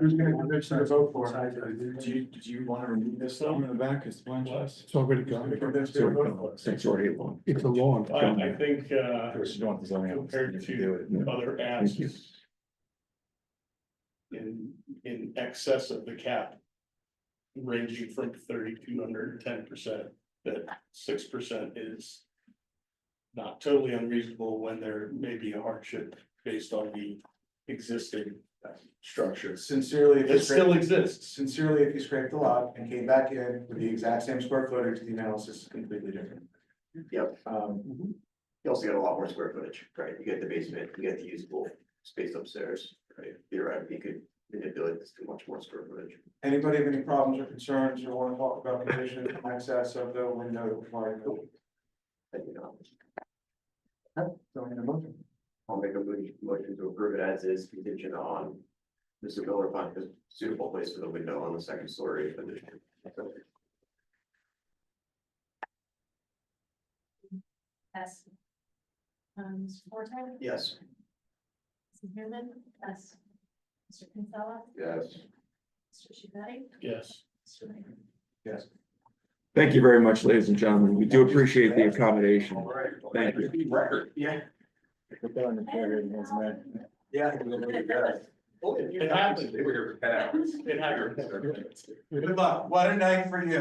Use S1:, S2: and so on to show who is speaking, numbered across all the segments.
S1: Who's gonna convince you to vote for it?
S2: Do you, do you wanna remove this stuff in the back is bunch less?
S3: It's already
S2: Who's
S3: gone.
S2: gonna convince you to vote for it?
S4: It's already long.
S3: It's a lawn.
S5: I, I think, uh,
S4: First, you don't want the zoning office
S5: compared
S4: to
S5: to
S4: do it. No.
S5: other
S4: Thank you.
S5: ads. In, in excess of the cap. Ranging from thirty-two hundred and ten percent, that six percent is. Not totally unreasonable when there may be a hardship based on the existing uh, structure.
S2: Sincerely, if you
S5: It still
S2: scraped,
S5: exists.
S2: sincerely, if you scraped the lot and came back in with the exact same square footage, the analysis is completely different.
S6: Yep,
S2: Um,
S6: you also get a lot more square footage, right? You get the basement, you get the usable space upstairs, right? Theoretically, you could manipulate this to much more square footage.
S2: anybody have any problems or concerns or wanna talk about condition of access of the window requirement?
S6: And you know,
S2: So in a motion.
S6: I'll make a mo- motion to approve it as is contingent on. Mr. Miller finding a suitable place for the window on the second story of the.
S7: Yes. Um, Mr. Forte?
S6: Yes.
S7: Mrs. Newman? Yes. Mr. Kinsella?
S6: Yes.
S7: Mr. Shuhei?
S5: Yes.
S7: Mr. Mayor?
S4: Thank you very much, ladies and gentlemen. We do appreciate the accommodation.
S2: All right.
S4: Thank you.
S2: Record, yeah.
S4: Put that on the carrier, it doesn't matter.
S2: Yeah.
S5: It happened.
S6: They were here for
S5: It happened.
S2: Good luck, what a night for you.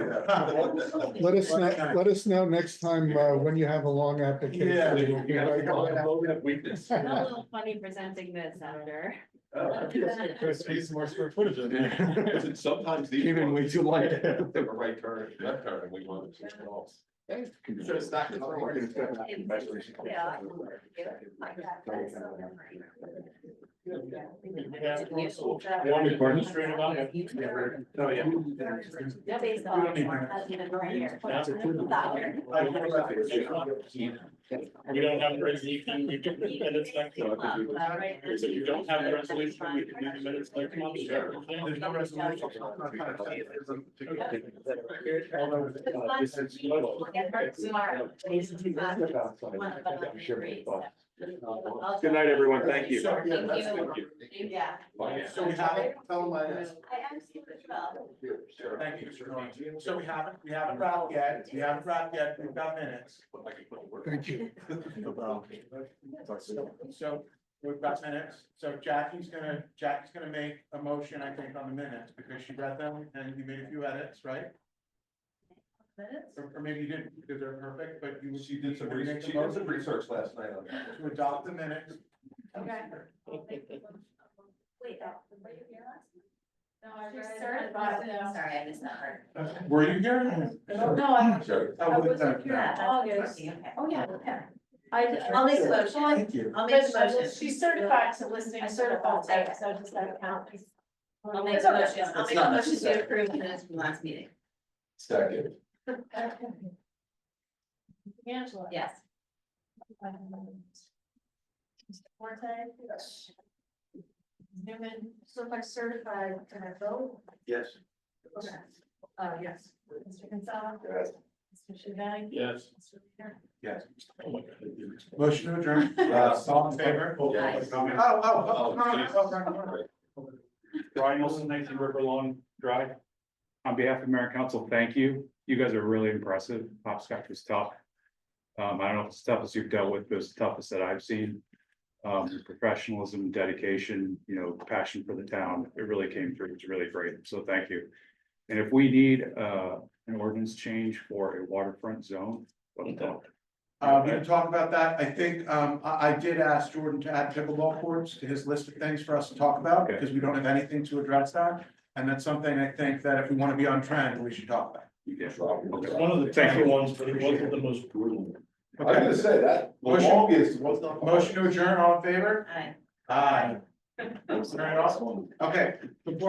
S3: Let us, kn- let us know next time uh, when you have a long
S2: Yeah.
S3: application.
S7: It's a little funny presenting this, Senator.
S2: Space more square footage in there.
S6: Sometimes
S4: Came in way too light.
S6: they were right turn, left turn, and we wanted to. So it's not-
S7: Yeah. Like that, that's so different. Yeah.
S5: We have one, so one is administrative on it.
S2: Oh, yeah.
S7: Yeah, based on, that's even right here.
S5: That's a good
S7: Stop here.
S5: We don't have a resolution, we can do minutes next
S7: Uh,
S5: month.
S7: right.
S5: If you don't have a resolution, we can do the minutes next month.
S2: There's no resolution.
S7: Okay.
S2: This is-
S7: Look at her tomorrow. It's not one of the three, so-
S4: Good night, everyone. Thank you.
S7: Thank
S6: Yeah, that's
S7: you.
S6: good.
S7: Yeah.
S2: So we haven't, tell them I asked.
S7: I am super well.
S2: Thank you, Mr. Rowan. So we haven't, we haven't wrapped yet, we haven't wrapped yet, we've got minutes.
S3: Thank you.
S2: So we've got minutes, so Jackie's gonna, Jackie's gonna make a motion, I think, on the minutes, because she read them and you made a few edits, right? Or or maybe you didn't, because they're perfect, but you. She did some research, she did some research last night on that. To adopt the minutes.
S7: Okay. Wait, that, were uh, you here last? No, I read. Sorry, I missed that part.
S2: Were you here?
S7: No, I.
S2: I wasn't
S7: Yeah, oh, yeah, okay. Oh, yeah, yeah. I, I'll make the motion.
S2: Thank you.
S7: I'll make the
S8: But
S7: motion.
S8: She's certified to listening.
S7: I certified,
S8: certified.
S7: so just that count. I'll make
S8: It's
S7: the
S8: okay.
S7: motion, I'll
S2: It's
S7: make
S2: not
S7: the motion
S2: necessary.
S7: to approve minutes from last meeting.
S6: Second.
S8: Angela.
S7: Yes.
S8: Forte. Yes. Newman, so if I certify, can I vote?
S6: Yes.
S8: Okay. Uh, yes. Mr. Gonzalez.
S6: Yes.
S8: Mr. Shavani.
S5: Yes.
S8: Mr. Mayor.
S2: Yes.
S5: Oh my God.
S2: Motion to adjourn. Uh, all in favor? Oh,
S7: Aye.
S2: oh, oh, no, no, no, no, no.
S9: Brian Olson, nineteen River Lawn Drive. On behalf of Mayor and Council, thank you. You guys are really impressive. Hopscotch was tough. Um, I don't know if it's the toughest you've dealt with, but it's the toughest that I've seen. Um, professionalism, dedication, you know, passion for the town. It really came through. It's really great. So thank you. And if we need, uh, an ordinance change for a waterfront zone, let me know.
S2: Uh, we can talk about that. I think, um, I, I did ask Jordan to add pickleball courts to his list of things for us to talk about,
S9: Okay.
S2: because we don't have anything to address that. And that's something I think that if we want to be on trend, we should talk about.
S9: Yeah.
S5: It's One of the
S9: Thank
S5: tougher
S9: you.
S5: ones, but it wasn't the most brutal.
S2: Okay,
S6: say that,
S2: Motion-
S6: longest was
S2: motion to adjourn, all in favor?
S7: Aye.
S2: Aye. Very awesome. Okay, before